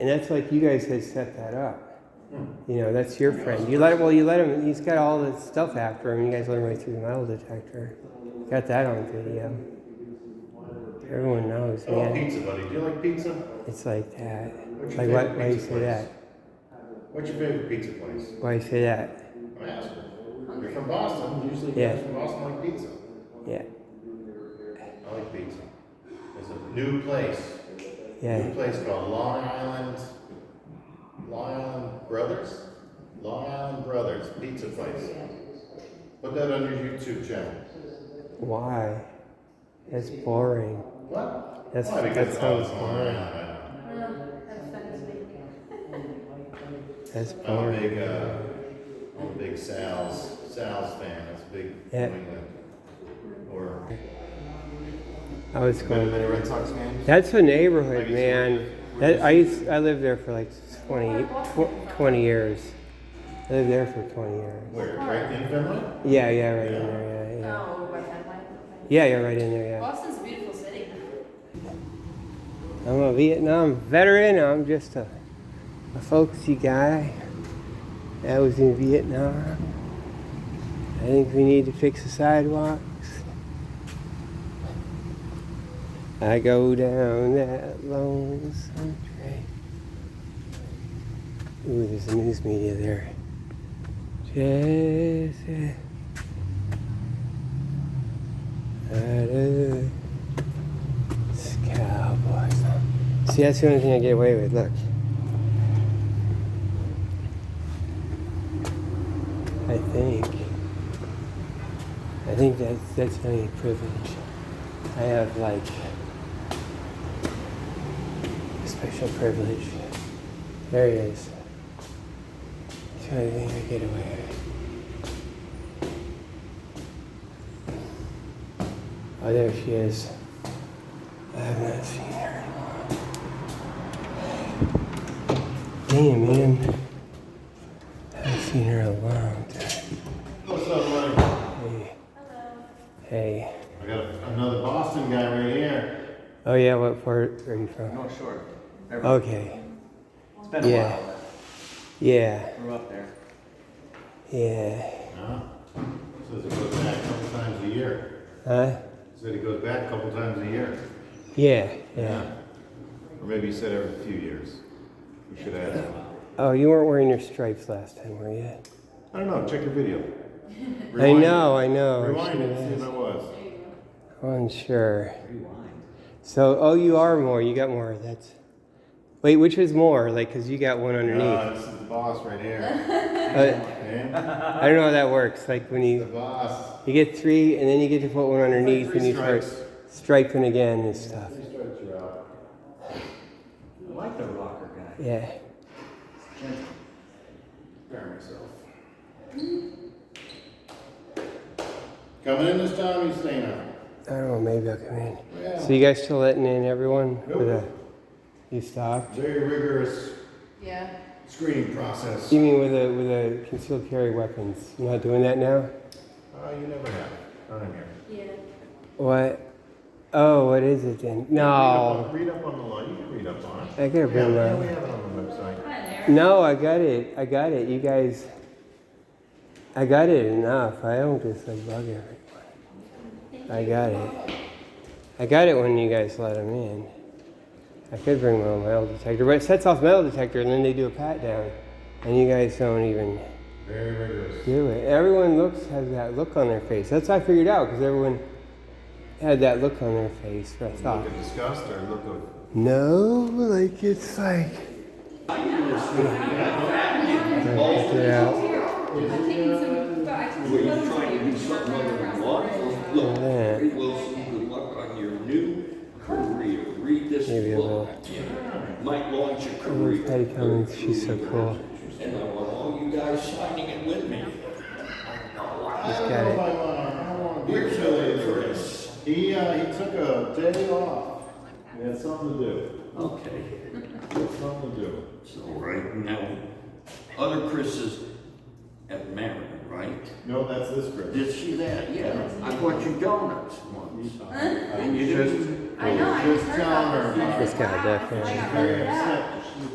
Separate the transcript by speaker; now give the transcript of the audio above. Speaker 1: And that's like you guys had set that up.
Speaker 2: Hmm.
Speaker 1: You know, that's your friend. You let well, you let him. He's got all the stuff after him. You guys let him right through the metal detector. Got that on video. Everyone knows,
Speaker 2: Oh,
Speaker 1: man.
Speaker 2: pizza, buddy. Do you like pizza?
Speaker 1: It's like that.
Speaker 2: What's your
Speaker 1: Like why,
Speaker 2: favorite
Speaker 1: why you
Speaker 2: pizza
Speaker 1: say
Speaker 2: place?
Speaker 1: that?
Speaker 2: What's your favorite pizza place?
Speaker 1: Why you say that?
Speaker 2: I'm asking. You're from Boston. Usually,
Speaker 1: Yeah.
Speaker 2: guys from Boston like pizza.
Speaker 1: Yeah,
Speaker 2: I like pizza. There's a new place.
Speaker 1: yeah.
Speaker 2: New place called Long Island. Long Island Brothers. Long Island Brothers Pizza Place. Put that on your YouTube channel.
Speaker 1: Why? That's boring.
Speaker 2: What?
Speaker 1: That's-
Speaker 2: Why?
Speaker 1: that
Speaker 2: Because I
Speaker 1: sounds
Speaker 2: was Long
Speaker 1: boring.
Speaker 2: Island.
Speaker 3: Well, that's fun to speak.
Speaker 1: That's
Speaker 2: I'm a
Speaker 1: boring.
Speaker 2: big, uh, I'm a big Sal's, Sal's fan. That's a big
Speaker 1: Yeah.
Speaker 2: New England. Or
Speaker 1: I was
Speaker 2: better
Speaker 1: going
Speaker 2: than a
Speaker 1: there.
Speaker 2: Red Sox fan.
Speaker 1: That's a
Speaker 2: Like
Speaker 1: neighborhood,
Speaker 2: it's-
Speaker 1: man. That I used, I lived there for like 20, tw- 20 years. I lived there for twenty years.
Speaker 2: Where? Right in Finland?
Speaker 1: Yeah, yeah, right in there. Yeah, yeah.
Speaker 3: Oh, right, that might be-
Speaker 1: Yeah, you're right in there. Yeah.
Speaker 3: Boston's a beautiful city.
Speaker 1: I'm a Vietnam veteran. I'm just a, a folksy guy. I was in Vietnam. I think we need to fix the sidewalks. I go down that lonesome train. Ooh, there's the news media there. Jesse. Da-da. It's Cowboys. See, that's the only thing I get away with. Look. I think. I think that's that's my privilege. I have like a special privilege. There it is. It's the only thing I get away with. Oh, there she is. I have not seen her in a while. Damn, man. I haven't seen her in a long time.
Speaker 2: What's up, buddy?
Speaker 1: Hey. Hey.
Speaker 2: I got another Boston guy right here.
Speaker 1: Oh, yeah, what part are you from?
Speaker 4: North Shore. Never-
Speaker 1: Okay.
Speaker 4: It's been a
Speaker 1: Uh, yeah.
Speaker 4: while.
Speaker 1: Yeah.
Speaker 4: but Grew up there.
Speaker 1: Yeah.
Speaker 2: Huh? Says he goes back a couple times a year.
Speaker 1: Huh?
Speaker 2: Said he goes back a couple times a year.
Speaker 1: Yeah. Yeah.
Speaker 2: Or maybe he said every few years. We should add that.
Speaker 1: Oh, you weren't wearing your stripes last time, were you?
Speaker 2: I don't know. Check your video.
Speaker 1: I
Speaker 2: Rewind it.
Speaker 1: know, I know. I
Speaker 2: Rewind it.
Speaker 1: should've
Speaker 2: and See if I
Speaker 1: asked.
Speaker 2: was.
Speaker 1: I'm unsure. So, oh, you are more. You got more. That's. Wait, which is more? Like, because you got one underneath.
Speaker 2: Uh, this is the boss right here.
Speaker 1: Uh,
Speaker 2: Okay?
Speaker 1: I don't know how that works. Like when
Speaker 2: The
Speaker 1: you
Speaker 2: boss.
Speaker 1: you get three, and then you get to put one underneath,
Speaker 2: Three
Speaker 1: and you start
Speaker 2: strikes.
Speaker 1: striping again and stuff.
Speaker 2: Three strikes, you're out.
Speaker 4: I like the rocker guy.
Speaker 1: Yeah.
Speaker 4: Gentle.
Speaker 2: Prepare myself. Coming in this time, you staying out.
Speaker 1: I don't know. Maybe I'll come in.
Speaker 2: Yeah.
Speaker 1: So you guys still letting in everyone?
Speaker 2: Nope.
Speaker 1: With a, you stopped?
Speaker 2: Very rigorous
Speaker 3: Yeah.
Speaker 2: screening process.
Speaker 1: You mean with a with a concealed carry weapons? You're not doing that now?
Speaker 2: Uh, you never have. Not in here.
Speaker 3: Yeah.
Speaker 1: What? Oh, what is it then? No.
Speaker 2: Read up on, read up on the law. You can read up on it.
Speaker 1: I gotta
Speaker 2: Yeah,
Speaker 1: bring
Speaker 2: yeah, we
Speaker 1: that.
Speaker 2: have it on the website.
Speaker 3: Hi there.
Speaker 1: No, I got it. I got it. You guys. I got it enough. I don't just like bug everyone. I got it. I got it when you guys let them in. I could bring my own metal detector, but it sets off metal detector and then they do a pat down. And you guys don't even
Speaker 2: Very rigorous.
Speaker 1: do it. Everyone looks has that look on their face. That's how I figured out because everyone had that look on their face. I thought,
Speaker 2: Look at disgust or look of.
Speaker 1: no, like it's like. Get out.
Speaker 3: I'm taking some, but I took some
Speaker 5: Were you
Speaker 3: photos of
Speaker 5: trying to do
Speaker 3: you.
Speaker 5: something other than law enforcement?
Speaker 1: Yeah.
Speaker 5: Look, Wilson, good luck on your new career. Read this
Speaker 1: Maybe I will.
Speaker 5: book. Yeah. Might launch a career.
Speaker 1: Patty Cummings, she's so cool.
Speaker 5: And I want all you guys signing it with me.
Speaker 2: I
Speaker 1: got
Speaker 2: don't know
Speaker 1: it.
Speaker 2: if I want to, I don't want to be affiliated with this. He, uh, he took a day off. He had something to do.
Speaker 5: Okay,
Speaker 2: He had something to do.
Speaker 5: so right now, other Chris is at Mariner, right?
Speaker 2: No, that's this Chris.
Speaker 5: Did she that? Yeah, I bought you donuts once.
Speaker 2: I
Speaker 5: you
Speaker 2: just,
Speaker 5: didn't-
Speaker 3: I know, I
Speaker 2: just
Speaker 3: just heard
Speaker 2: telling
Speaker 3: about
Speaker 2: her.
Speaker 3: this.
Speaker 1: This guy
Speaker 3: Wow,
Speaker 1: definitely-
Speaker 3: I got
Speaker 2: Very
Speaker 3: really bad.
Speaker 2: upset.